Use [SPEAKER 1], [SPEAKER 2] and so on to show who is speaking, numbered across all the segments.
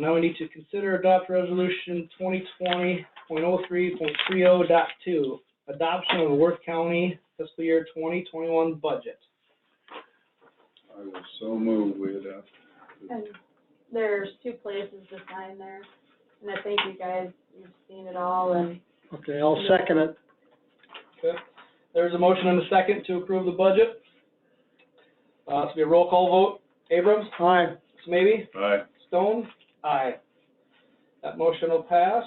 [SPEAKER 1] Now we need to consider adopt resolution twenty twenty point oh three point three oh dot two, adoption of the Worth County fiscal year twenty twenty-one budget.
[SPEAKER 2] I will so move with, uh,
[SPEAKER 3] And there's two places to sign there, and I think you guys, you've seen it all, and
[SPEAKER 4] Okay, I'll second it.
[SPEAKER 1] Okay. There's a motion and a second to approve the budget. Uh, it's gonna be a roll call vote. Abrams,
[SPEAKER 4] Aye.
[SPEAKER 1] Smithy,
[SPEAKER 2] aye,
[SPEAKER 1] Stone? Aye. That motion will pass.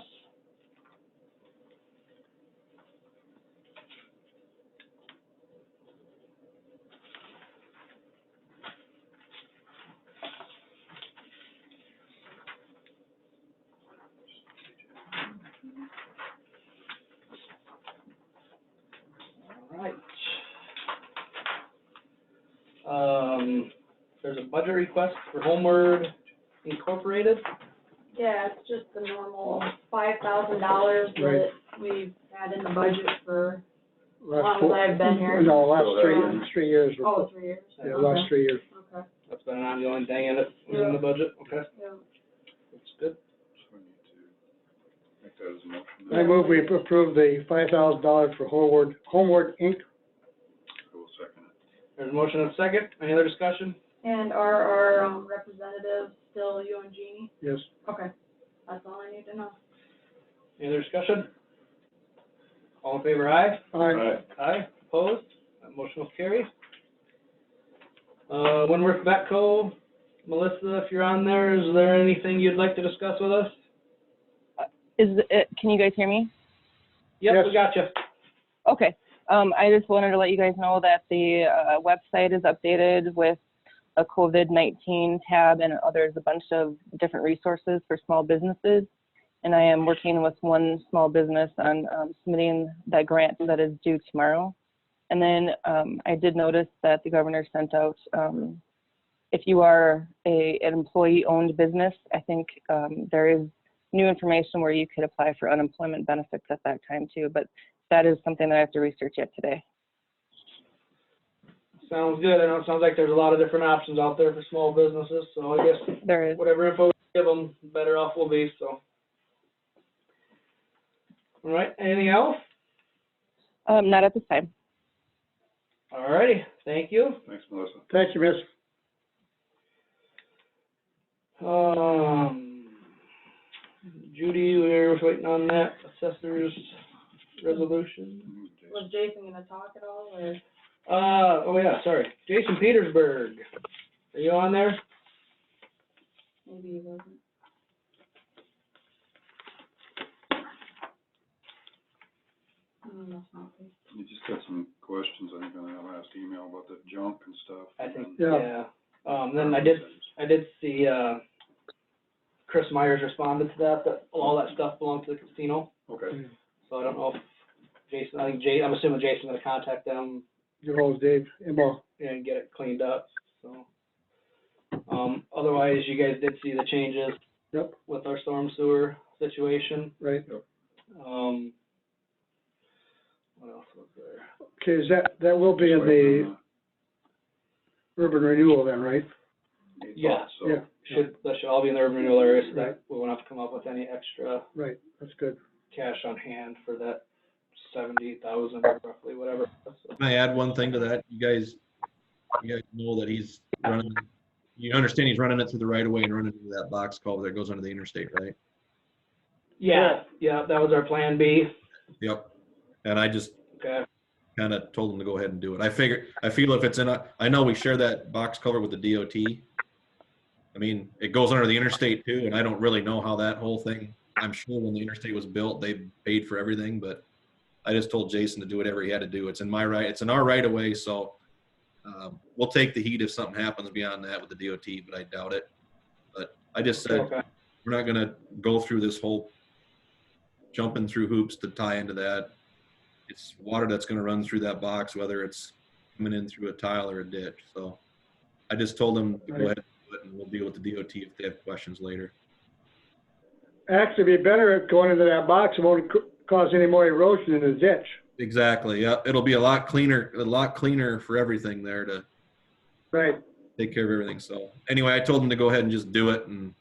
[SPEAKER 1] All right. Um, there's a budget request for Homeward Incorporated.
[SPEAKER 3] yeah, it's just the normal five thousand dollars that we've had in the budget for,
[SPEAKER 4] Last
[SPEAKER 3] as
[SPEAKER 4] four-
[SPEAKER 3] I've been here.
[SPEAKER 4] No,
[SPEAKER 2] So
[SPEAKER 4] last
[SPEAKER 3] that's-
[SPEAKER 4] three, three years. were-
[SPEAKER 3] oh, three years.
[SPEAKER 4] Yeah, last three years.
[SPEAKER 3] Okay,
[SPEAKER 1] That's been an ongoing thing in it, within the budget, okay,
[SPEAKER 3] so,
[SPEAKER 1] that's good.
[SPEAKER 2] so we need to make that as a motion.
[SPEAKER 4] I move we approve the five thousand dollars for Homeward, Homeward Inc.
[SPEAKER 2] I will second it.
[SPEAKER 1] There's a motion and a second, any other discussion?
[SPEAKER 3] and are our um, representatives still you and Jeannie?
[SPEAKER 4] Yes.
[SPEAKER 3] Okay, that's all I need to know.
[SPEAKER 1] Any other discussion? All in favor, aye?
[SPEAKER 4] Aye.
[SPEAKER 1] Aye, opposed, that motion will carry. Uh, Winworth Betco, Melissa, if you're on there, is there anything you'd like to discuss with us?
[SPEAKER 5] Is it, can you guys hear me?
[SPEAKER 1] Yep, we
[SPEAKER 4] Yes.
[SPEAKER 1] got you.
[SPEAKER 5] Okay. Um, I just wanted to let you guys know that the uh, website is updated with a COVID-19 tab and there's a bunch of different resources for small businesses. And I am working with one small business on um, submitting that grant that is due tomorrow. And then um, I did notice that the governor sent out, um, if you are a, an employee-owned business, I think um, there is new information where you could apply for unemployment benefits at that time too. But that is something that I have to research yet today.
[SPEAKER 1] Sounds good, I know it sounds like there's a lot of different options out there for small businesses, so I guess
[SPEAKER 5] There is.
[SPEAKER 1] whatever info we give them, the better off we'll be, so. All right, anything else?
[SPEAKER 5] Um, not at this time.
[SPEAKER 1] All righty, thank you.
[SPEAKER 2] Thanks, Melissa.
[SPEAKER 4] Thank you, miss.
[SPEAKER 1] Um, Judy, we were waiting on that assessor's resolution.
[SPEAKER 2] Move, Jason.
[SPEAKER 3] Was Jason gonna talk at all, or?
[SPEAKER 1] Uh, oh yeah, sorry, Jason Petersburg, are you on there?
[SPEAKER 3] Maybe he wasn't. I don't know, it's not me.
[SPEAKER 2] You just got some questions, I think, on that last email about the junk and stuff.
[SPEAKER 1] I think,
[SPEAKER 2] and-
[SPEAKER 1] yeah.
[SPEAKER 4] Yeah.
[SPEAKER 1] Um, then I did, I did see, uh, Chris Myers responded to that, that all that stuff belonged to the casino.
[SPEAKER 2] Okay,
[SPEAKER 1] So I don't know if Jason, I think Jay, I'm assuming Jason's gonna contact them
[SPEAKER 4] Good old Dave Immo.
[SPEAKER 1] and get it cleaned up, so. Um, otherwise, you guys did see the changes
[SPEAKER 4] Yep,
[SPEAKER 1] with our storm sewer situation.
[SPEAKER 4] right.
[SPEAKER 1] Um, what else was there?
[SPEAKER 4] Okay, is that, that will be in
[SPEAKER 2] Just wait
[SPEAKER 4] the urban renewal then, right?
[SPEAKER 2] for the-
[SPEAKER 1] Yeah.
[SPEAKER 2] so-
[SPEAKER 4] Yeah,
[SPEAKER 1] Should, that should all be in the urban renewal area, so that we won't have to come up with any extra
[SPEAKER 4] right, that's good.
[SPEAKER 1] cash on hand for that seventy thousand roughly, whatever. So,
[SPEAKER 6] Can I add one thing to that? You guys, you guys know that he's running, you understand he's running it through the right of way and running into that box culvert that goes under the interstate, right?
[SPEAKER 1] Yeah, yeah, that was our plan B,
[SPEAKER 6] Yep. And I just
[SPEAKER 1] okay.
[SPEAKER 6] kind of told him to go ahead and do it. I figure, I feel if it's in a, I know we share that box culvert with the DOT. I mean, it goes under the interstate too, and I don't really know how that whole thing, I'm sure when the interstate was built, they paid for everything, but I just told Jason to do whatever he had to do. It's in my right, it's in our right of way, so um, we'll take the heat if something happens beyond that with the DOT, but I doubt it. But I just said,
[SPEAKER 1] Okay.
[SPEAKER 6] we're not gonna go through this whole jumping through hoops to tie into that. It's water that's gonna run through that box, whether it's coming in through a tile or a ditch, so. I just told them to go ahead and do it, and we'll deal with the DOT if they have questions later.
[SPEAKER 4] Actually, it'd be better if going into that box, it won't c- cause any more erosion in the ditch.
[SPEAKER 6] Exactly, yeah, it'll be a lot cleaner, a lot cleaner for everything there to
[SPEAKER 4] Right,
[SPEAKER 6] take care of everything, so. Anyway, I told them to go ahead and just do it, and